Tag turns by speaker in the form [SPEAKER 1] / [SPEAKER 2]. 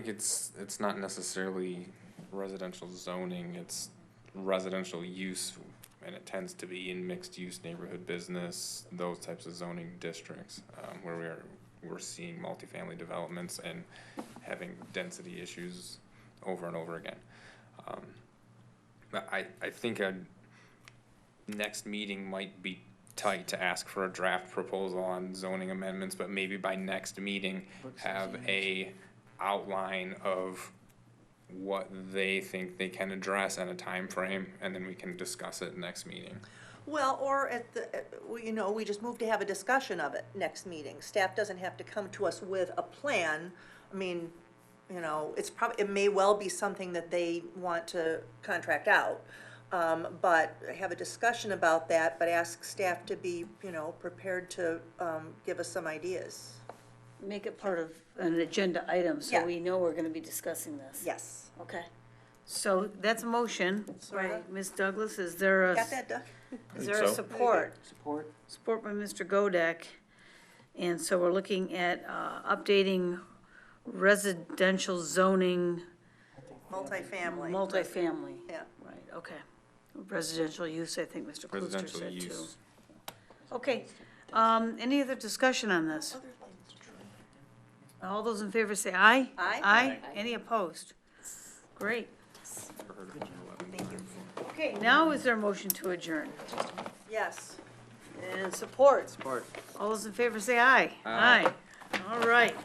[SPEAKER 1] think It's, it's not necessarily residential zoning, it's residential use, and it tends to be in mixed-use neighborhood business, those types of zoning districts, um, where we are, we're seeing multifamily developments and having density issues over and over again. Um, but I, I think a next meeting might be tight to ask for a draft proposal on zoning amendments, but maybe by next meeting, have a outline of what they think they can address and a time frame, and then we can discuss it next meeting.
[SPEAKER 2] Well, or at the, uh, we- you know, we just move to have a discussion of it next meeting. Staff doesn't have to come to us with a plan. I mean, you know, it's prob, it may well be something that they want to contract out. Um, but have a discussion about that, but ask staff to be, you know, prepared to, um, give us some ideas.
[SPEAKER 3] Make it part of an agenda item, so
[SPEAKER 2] Yeah.
[SPEAKER 3] we know we're gonna be discussing this.
[SPEAKER 2] Yes.
[SPEAKER 3] Okay. So that's a motion by
[SPEAKER 2] Sorta.
[SPEAKER 3] Ms. Douglas. Is there a,
[SPEAKER 2] uh, Got that, Doug?
[SPEAKER 3] is there a support?
[SPEAKER 4] Support.
[SPEAKER 3] Support by Mr. Godek. And so we're looking at, uh, updating residential zoning
[SPEAKER 2] Multifamily,
[SPEAKER 3] multifamily.
[SPEAKER 2] yeah.
[SPEAKER 3] Right, okay. Residential use, I think Mr. Klooster
[SPEAKER 1] Residential
[SPEAKER 3] said too.
[SPEAKER 1] use.
[SPEAKER 3] Okay, um, any other discussion on this? All those in favor say aye?
[SPEAKER 2] Aye.
[SPEAKER 3] Aye, any opposed? Great. Okay, now is there a motion to adjourn?
[SPEAKER 2] Yes.
[SPEAKER 3] And support,
[SPEAKER 4] Support.
[SPEAKER 3] all those in favor say aye? Aye. All right.